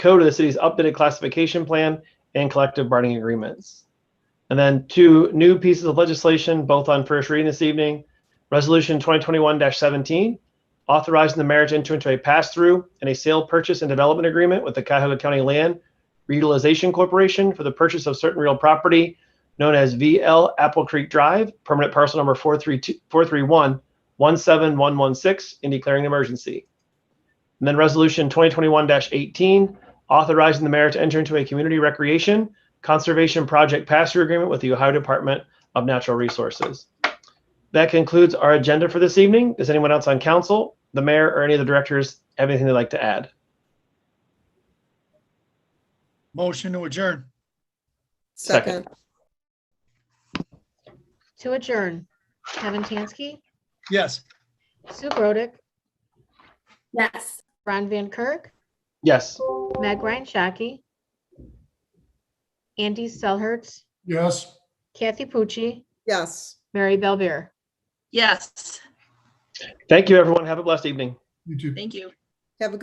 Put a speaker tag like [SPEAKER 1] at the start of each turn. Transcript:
[SPEAKER 1] code of the city's updated classification plan and collective bargaining agreements. And then two new pieces of legislation, both on first reading this evening. Resolution 2021-17, authorizing the mayor to enter into a pass-through and a sale, purchase, and development agreement with the Cuyahoga County Land Reutilization Corporation for the purchase of certain real property known as VL Apple Creek Drive, permanent parcel number 432 431-17116, and declaring an emergency. And then Resolution 2021-18, authorizing the mayor to enter into a community recreation conservation project pass-through agreement with the Ohio Department of Natural Resources. That concludes our agenda for this evening. Does anyone else on council, the mayor, or any of the directors have anything they'd like to add?
[SPEAKER 2] Motion to adjourn.
[SPEAKER 1] Second.
[SPEAKER 3] Second.
[SPEAKER 4] To adjourn, Kevin Tansky,
[SPEAKER 2] Yes.
[SPEAKER 4] Sue Grodick,
[SPEAKER 5] Yes.
[SPEAKER 4] Ron Van Kirk,
[SPEAKER 1] Yes.
[SPEAKER 4] Meg Ryan Shaki, Andy Selhertz,
[SPEAKER 2] Yes.
[SPEAKER 4] Kathy Pucci,
[SPEAKER 3] Yes.
[SPEAKER 4] Mary Belbeer.
[SPEAKER 5] Yes,
[SPEAKER 1] Thank you, everyone. Have a blessed evening.
[SPEAKER 2] You too.
[SPEAKER 5] thank you.